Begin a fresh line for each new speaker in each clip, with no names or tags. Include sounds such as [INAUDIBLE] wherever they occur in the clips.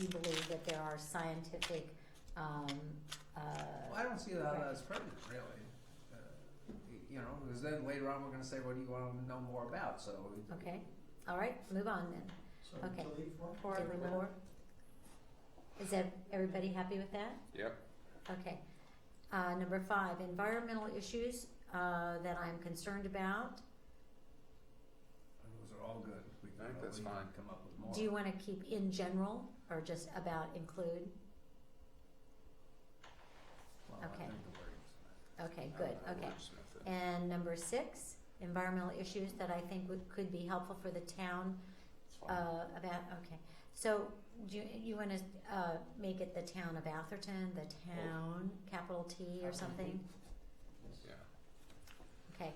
you believe that there are scientific, um, uh.
Well, I don't see that as prejudice, really. Uh, y- You know, because then later on, we're gonna say, what do you want to know more about, so. it-
Okay, all right, move on then.
So
Okay.
delete one?
Four, four. Is that, everybody happy with that?
Yep.
Okay. Uh, number five, environmental issues, uh, that I'm concerned about.
Those are all good. We
I think
can
that's
we can
fine.
Come up with more.
Do you wanna keep in general or just about include?
Well, I
okay.
think the wording's-
Okay, good,
I- I
okay.
wordsmith it.
And number six, environmental issues that I think would, could be helpful for the town,
It's
uh,
fine.
about, okay. So, do you, you wanna, uh, make it the town of Atherton, the town, capital T or something?
Yeah.
Okay,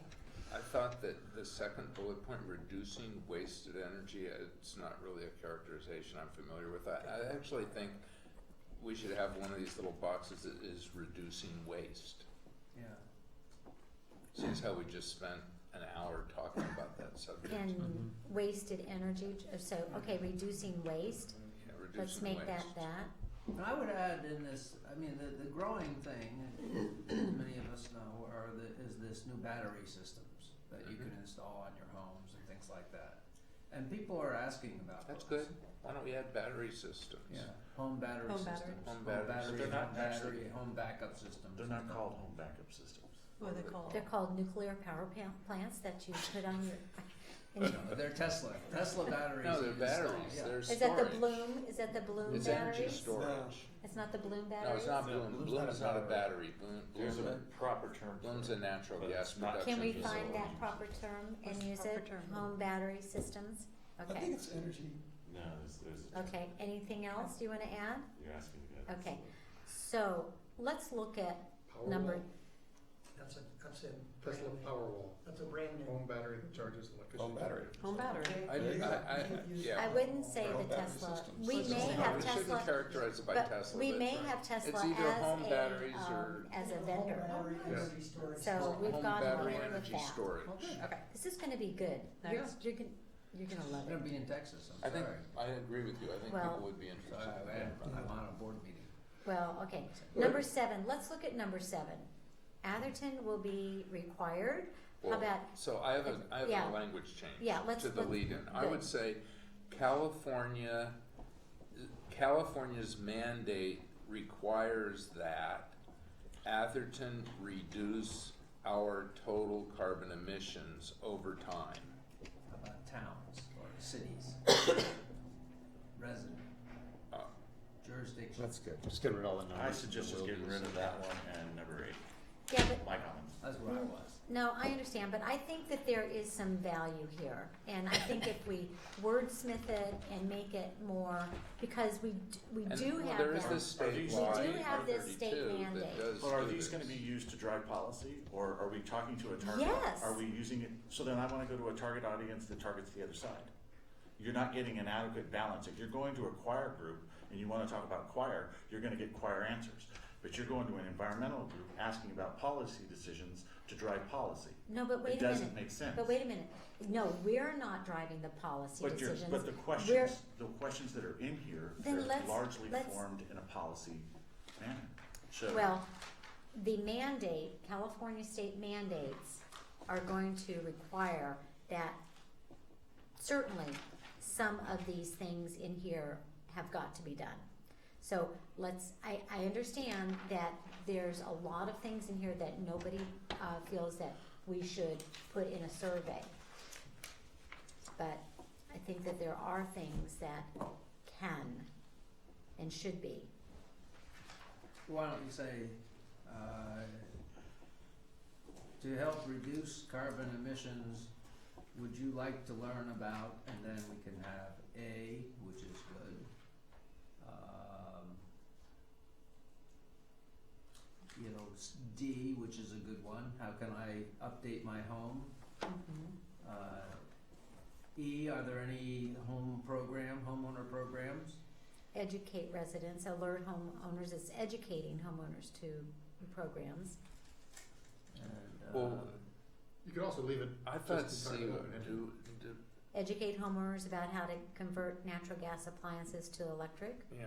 I thought that the second bullet point, reducing wasted energy, it's not really a characterization I'm familiar with. I, I actually think we should have one of these little boxes that is reducing waste.
Yeah.
Since how we just spent an hour talking about that subject.
and
Mm-hmm.
wasted energy, j- uh, so, okay, reducing waste,
Yeah,
let's
reducing
make that
waste.
that.
And I would add in this, I mean, the, the growing thing, as many of us know, are the, is this new battery systems that you
Mm-hmm.
can install on your homes and things like that. And people are asking about those.
That's good. Why don't we add battery systems?
Yeah, home battery
Home battery.
systems.
Home batteries. But
battery,
they're
home
not actually-
battery, home backup systems.
They're not called home backup systems.
What are they called?
They're called nuclear power pa- plants that you put on your. [LAUGHS]
[LAUGHS]
in-
No, They're Tesla, Tesla batteries.
No, they're
you install,
batteries.
yeah.
They're storage.
Is that the Bloom, is that the Bloom
It's energy
batteries?
storage.
It's not the Bloom
No,
batteries?
it's not
No,
Bloom.
Bloom's
Bloom
not a
is not a battery.
battery.
Bloom,
There's a
Bloom,
proper term for
Bloom's
it.
a natural
But
gas
it's not-
production
Can we
It's
find
all-
that proper term and
What's the
use
proper
it?
term?
Home battery systems?
I think
Okay,
it's energy.
No, there's, there's a term.
okay, anything else you wanna add?
You're asking me that.
Okay. So, let's look at number,
That's a, that's a Tesla Powerwall,
That's a brand
home battery that charges electricity.
Home battery.
Home battery.
I, I, I, yeah.
I wouldn't say
Home
the
battery
Tesla,
systems.
we
Let's
may
just say
have
We
Tesla.
shouldn't characterize it by
But
Tesla.
we
that's
may
right.
have Tesla
It's either home
as a,
batteries
um,
or-
as a
Home
vendor.
battery,
Yeah.
energy storage
So
system.
we've
Home
gone along
battery
with
energy
that.
storage.
Oh,
Okay.
This is gonna be good. You're,
Next.
you're gonna, you're gonna
I'm
love
gonna
it.
be in Texas, I'm
I think,
sorry.
I agree with you. I think
Well-
people would be
So
interested.
I- I- I'm on a board meeting.
Well, okay. Number seven, let's look at number seven. Atherton will be required. How
Well,
about,
So I have a, I have
Yeah.
a language change.
Yeah, let's-
To the
let's-
lead-in. I would
good.
say California, California's mandate requires that Atherton reduce our total carbon emissions over time.
How about towns or
[COUGHS]
cities? Resident.
Uh,
Jurisdiction.
That's good, just get rid of all the
I suggest just getting rid of that one and number eight,
yeah, but,
my comments.
That's where I was.
no, I understand, but I think that there is some value here. And I think if we wordsmith it and make it more, because we, d- we
And
do
well,
have
there is
that.
this
Are
state
these-
law,
We do
in
have this state
132 that
mandate.
does
But are
do this.
these gonna be used to drive policy, or are we talking to a target?
Yes.
Are we using it, so then I wanna go to a target audience that targets the other side. You're not getting an adequate balance, if you're going to a choir group and you wanna talk about choir, you're gonna get choir answers. But you're going to an environmental group asking about policy decisions to drive policy.
No, but wait a minute.
doesn't make sense.
But wait a minute. No, we're not driving the policy
But you're,
decisions.
but the
We're-
questions, the questions that are in here,
Then
they're
let's-
largely
let's-
formed in a policy manner. So-
Well, the mandate, California state mandates are going to require that certainly some of these things in here have got to be done. So let's, I, I understand that there's a lot of things in here that nobody, uh, feels that we should put in a survey. But I think that there are things that can and should be.
Why don't you say, uh, to help reduce carbon emissions, would you like to learn about, and then we can have A, which is good. Um, you know, s- D, which is a good one, how can I update my home? Uh, E, are there any home program, homeowner programs?
educate residents, alert homeowners, it's educating homeowners to programs.
And, uh,
Well,
You could also leave it
I thought
Just
uh,
C
to talk about
would
it.
do, do,
educate homeowners about how to convert natural gas appliances to electric.
yeah.